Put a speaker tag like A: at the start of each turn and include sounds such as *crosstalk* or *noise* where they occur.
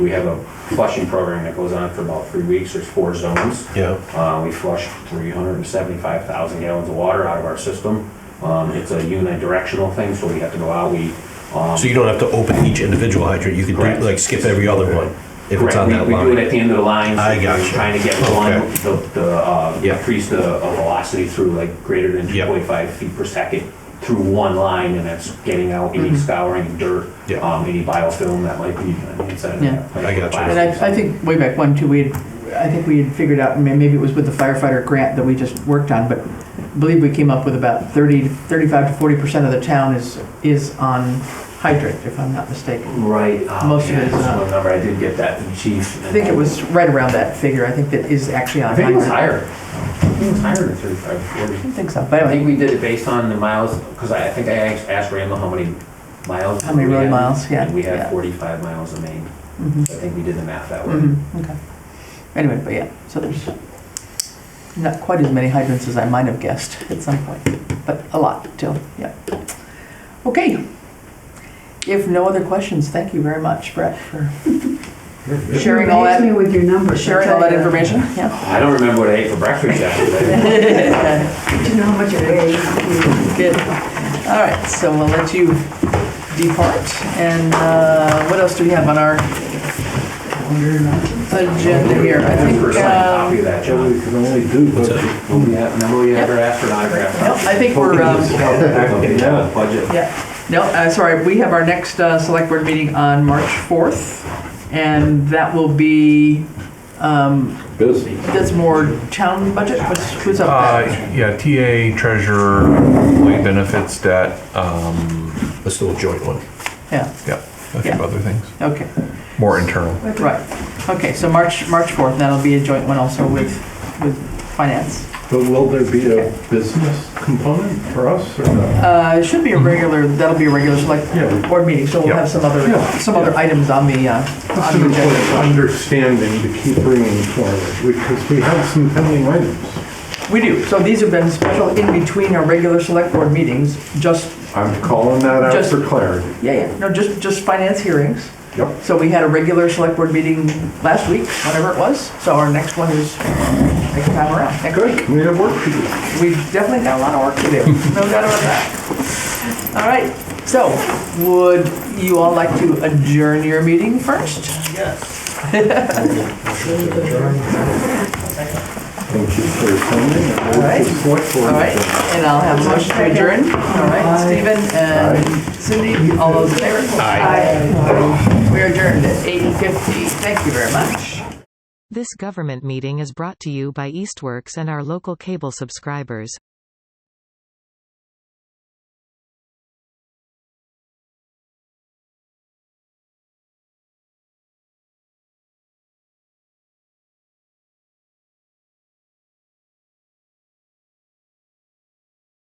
A: We have a flushing program that goes on for about three weeks. There's four zones.
B: Yeah,
A: Uh, we flush 375,000 gallons of water out of our system. Um, it's a unidirectional thing, so we have to go out, we, um,
B: so you don't have to open each individual hydrant, you could do,
A: Correct.
B: like, skip every other one, if it's
A: Correct.
B: on
A: We-
B: that
A: We do it
B: line.
A: at the end of the line. so
B: I
A: we're
B: gotcha.
A: Trying to get
B: Okay.
A: one, the, the, uh,
B: Yeah.
A: increase the uh, velocity through like greater than
B: Yep.
A: 2.5 feet per second through one line, and that's getting out
C: Mm-hmm.
A: any scouring, dirt,
B: Yeah.
A: um, any biofilm that might be on the inside of
C: Yeah.
A: that. pipe
B: I
A: or
B: gotcha.
A: plastic.
C: And I, I think way back when too, we had, I think we had figured out, and maybe it was with the firefighter grant that we just worked on, but I believe we came up with about 30, 35 to forty percent of the town is, is on hydrant, if I'm not mistaken.
A: Right. oh,
C: Most of
A: yeah,
C: it is
A: that's
C: not.
A: one number, I did get that from chief.
C: I think it was right around that figure, I think that is actually on
A: I think it was
C: hydrant.
A: higher. I think it was higher than 35, 40.
C: I don't think so, but
A: I think
C: anyway,
A: we did it based on the miles, because I, I think I asked- asked Randall how many miles.
C: how many
A: we
C: road
A: had,
C: miles, yeah.
A: And we
C: yeah.
A: had forty-five miles of main. I
C: Mhm,
A: think we did the math that way.
C: mhm, Okay. Anyway, but yeah, so there's not quite as many hydrants as I might have guessed at some point, but a lot still, yeah. Okay. If no other questions, thank you very much, Brett, for sharing all
D: You amaze
C: that,
D: me with your numbers. I'll
C: sharing all
D: tell
C: that
D: ya.
C: information, yeah.
A: I don't remember what I ate for breakfast
C: *laughs*
A: after
D: Do you know how much it weighs?
C: Good. All right, so we'll let you depart. And uh, what else do we have on our agenda here? I
A: that.
C: think,
A: First copy
C: um,
A: of that,
E: Joe,
A: John.
E: we can only do, but
A: Yeah, remember you ever asked for an
C: no,
A: autograph?
C: I think we're, um,
A: Yeah, budget.
C: yeah, no, uh, sorry, we have our next uh, select board meeting on March 4th. And that will be, um,
E: busy.
C: that's more town budget, what's, who's up?
F: Uh,
C: there?
F: yeah, TA, treasurer, employee benefits, debt, um,
B: Let's do a joint one.
E: Uh.
C: Yeah,
F: yeah, a few
C: Yeah.
F: other things,
C: okay.
F: more internal.
C: Right, okay, so March, March 4th, that'll be a joint one also with, with finance.
E: But will there be a business component for us or not?
C: Uh, it should be a regular, that'll be a regular select
E: Mm-hmm. Yeah.
C: board meeting, so we'll
F: Yeah.
C: have some other,
E: Yeah.
C: some other items on the, uh, on the
E: Simply
C: agenda.
E: understanding to keep bringing forward, because we have some pending items.
C: We do, so these have been special in between our regular select board meetings, just,
E: I'm calling that out
C: Just-
E: for clarity.
C: yeah, yeah, no, just, just finance hearings.
E: Yep.
C: So we had a regular select board meeting last week, whatever it was, so our next one is next time around, next week.
E: Good, we have work to do.
C: We've definitely got a lot of work to do, *laughs* no doubt about that. All right, so would you all like to adjourn your meeting first?
E: Thank you for attending. and
C: All right.
E: we'll select board.
C: All right, and I'll have a motion to adjourn. All right, Stephen and Cindy, all those in favor? Aye. We're adjourned at 8:50. Thank you very much.
G: This government meeting is brought to you by Eastworks and our local cable subscribers.